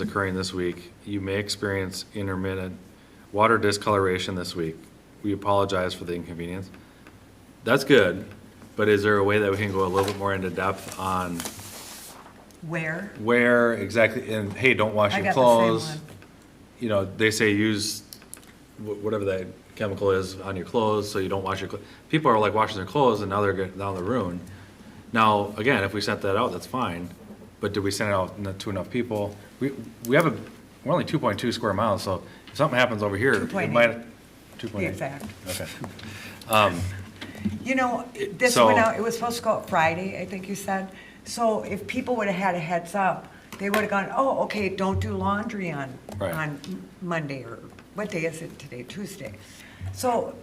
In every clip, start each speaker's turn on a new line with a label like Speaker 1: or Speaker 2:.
Speaker 1: is occurring this week. You may experience intermittent water discoloration this week. We apologize for the inconvenience. That's good, but is there a way that we can go a little bit more into depth on
Speaker 2: Where?
Speaker 1: where exactly, and hey, don't wash
Speaker 2: I
Speaker 1: your
Speaker 2: got the same
Speaker 1: clothes.
Speaker 2: one.
Speaker 1: You know, they say use wh- whatever that chemical is on your clothes, so you don't wash your clothes. People are like washing their clothes and now they're, get- now they're ruined. Now, again, if we sent that out, that's fine, but did we send it out n- to enough people? We, we have a, we're only two point two square miles, so if something happens over here, it
Speaker 2: 2.8.
Speaker 1: might. Two point eight.
Speaker 2: Exact.
Speaker 1: Okay.
Speaker 2: You know,
Speaker 1: It-
Speaker 2: this
Speaker 1: so-
Speaker 2: went out, it was supposed to go out Friday, I think you said. So if people would have had a heads up, they would have gone, oh, okay, don't do laundry on,
Speaker 1: Right.
Speaker 2: on Monday or, what day is it today? Tuesday. So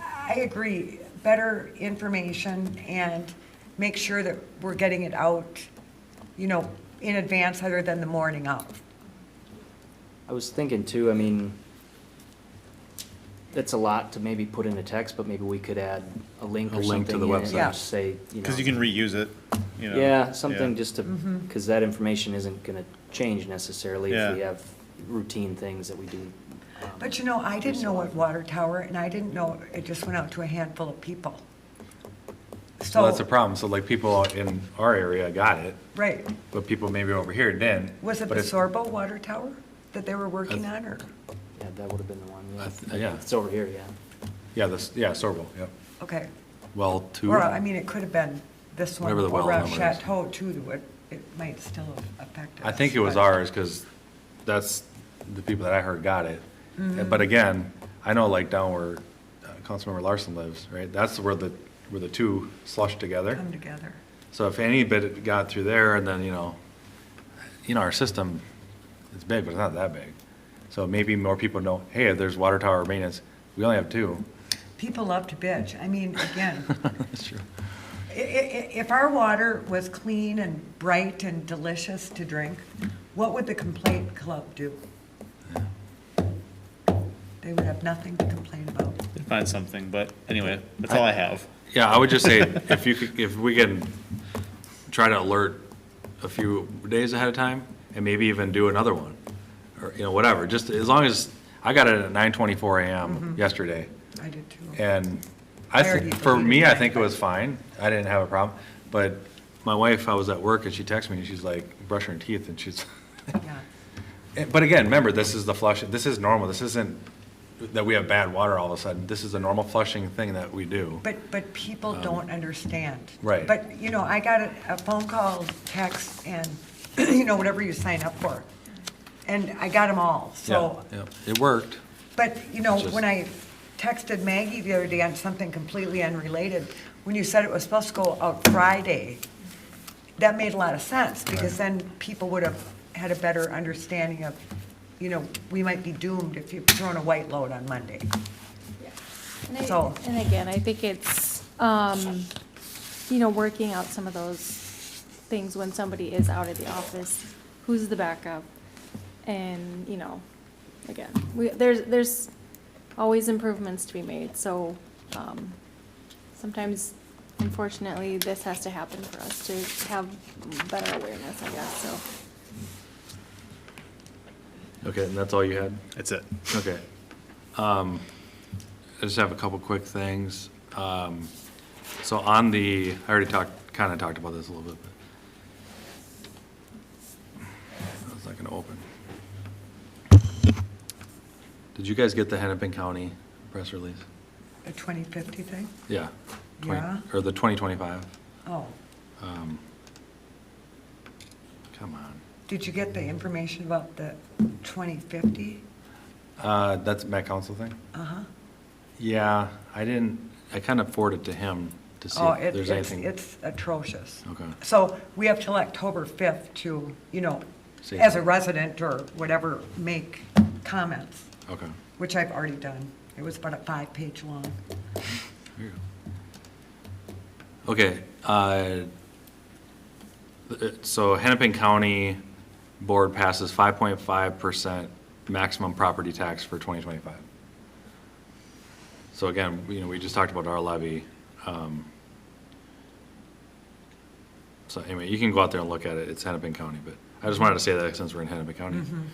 Speaker 2: I agree, better information and make sure that we're getting it out, you know, in advance other than the morning of.
Speaker 3: I was thinking too, I mean, that's a lot to maybe put in a text, but maybe we could add a link
Speaker 1: A
Speaker 3: or
Speaker 1: link to
Speaker 3: something
Speaker 1: the
Speaker 3: in it
Speaker 1: website.
Speaker 3: and
Speaker 2: Yeah.
Speaker 3: just say, you know.
Speaker 4: Because you can reuse it, you know?
Speaker 3: Yeah, something just to, because that information isn't gonna change necessarily if we
Speaker 4: Yeah.
Speaker 3: have routine things that we do. um,
Speaker 2: But you know, I didn't know what water tower, and I didn't know, it just went out to a handful of people.
Speaker 1: So that's a
Speaker 2: So,
Speaker 1: problem. So like people in our area got it,
Speaker 2: right,
Speaker 1: but people maybe over here didn't.
Speaker 2: was it the
Speaker 1: But it's-
Speaker 2: Sorbo water tower that they were working on, or,
Speaker 3: Yeah, that would have been the one,
Speaker 1: I
Speaker 3: yeah.
Speaker 1: th- yeah.
Speaker 3: It's over here, yeah.
Speaker 1: Yeah, this, yeah, Sorbo, yeah.
Speaker 2: okay.
Speaker 1: Well, two.
Speaker 2: Or, I mean, it could have been this one,
Speaker 1: Whatever the well
Speaker 2: or around
Speaker 1: number is.
Speaker 2: Chateau too, that would, it might still have affected
Speaker 1: I
Speaker 2: us,
Speaker 1: think it was
Speaker 2: but-
Speaker 1: ours, because that's, the people that I heard got it.
Speaker 2: Mm-hmm.
Speaker 1: But again, I know like down where uh, Councilmember Larson lives, right, that's where the, where the two slush together.
Speaker 2: Come together.
Speaker 1: So if any bit got through there, and then, you know, you know, our system is big, but it's not that big. So maybe more people know, hey, there's water tower maintenance, we only have two.
Speaker 2: People love to bitch, I mean, again,
Speaker 1: That's true.
Speaker 2: i- i- i- if our water was clean and bright and delicious to drink, what would the complaint club do? They would have nothing to complain about.
Speaker 4: They'd Find something, but anyway, that's all I have.
Speaker 1: Yeah, I would just say, if you could, if we can try to alert a few days ahead of time, and maybe even do another one, or, you know, whatever, just as long as, I got it at nine twenty-four AM yesterday,
Speaker 2: I did too.
Speaker 1: and I,
Speaker 2: I already
Speaker 1: thi- for
Speaker 2: deleted
Speaker 1: me, I
Speaker 2: mine,
Speaker 1: think it
Speaker 2: but-
Speaker 1: was fine, I didn't have a problem, but my wife, I was at work, and she texted me, and she's like, brushing her teeth, and she's,
Speaker 2: Yeah.
Speaker 1: Eh, But again, remember, this is the flush, this is normal, this isn't that we have bad water all of a sudden, this is a normal flushing thing that we do.
Speaker 2: But, but people don't understand.
Speaker 1: Um, Right.
Speaker 2: But, you know, I got a, a phone call, text, and, you know, whatever you sign up for. And I got them all, so.
Speaker 1: Yeah, yeah, It worked.
Speaker 2: But, you know,
Speaker 1: It's just-
Speaker 2: when I texted Maggie the other day on something completely unrelated, when you said it was supposed to go out Friday, that made a lot of sense, because then people would have had a better understanding of, you know, we might be doomed if you've thrown a white load on Monday.
Speaker 5: And I-
Speaker 2: So-
Speaker 5: And again, I think it's, um, you know, working out some of those things when somebody is out of the office, who's the backup? And, you know, again, we, there's, there's always improvements to be made, so, um, sometimes unfortunately, this has to happen for us to have better awareness, I guess, so.
Speaker 1: Okay, and that's all you had?
Speaker 4: That's it.
Speaker 1: Okay. Um, I just have a couple quick things. Um, so on the, I already talked, kind of talked about this a little bit, but it's not gonna open. Did you guys get the Hennepin County press release?
Speaker 2: A 2050 thing?
Speaker 1: Yeah. 20
Speaker 2: Yeah.
Speaker 1: Or the twenty twenty-five? um,
Speaker 2: Oh,
Speaker 1: Come on.
Speaker 2: did you get the information about the 2050?
Speaker 1: Uh, that's Met Council thing?
Speaker 2: Uh-huh.
Speaker 1: Yeah, I didn't, I kind of forwarded to him to see
Speaker 2: Oh,
Speaker 1: if
Speaker 2: it-
Speaker 1: there's
Speaker 2: it's,
Speaker 1: anything.
Speaker 2: it's atrocious.
Speaker 1: Okay.
Speaker 2: So we have till October 5th to, you know,
Speaker 1: See.
Speaker 2: as a resident or whatever, make comments,
Speaker 1: Okay.
Speaker 2: which I've already done. It was about a five-page long.
Speaker 1: There you go. Okay, uh, th- so Hennepin County Board passes five point five percent maximum property tax for twenty twenty-five. So again, you know, we just talked about our levy. um, So anyway, you can go out there and look at it, it's Hennepin County, but
Speaker 2: Mm-hmm.
Speaker 1: I just wanted to say that since we're in Hennepin County.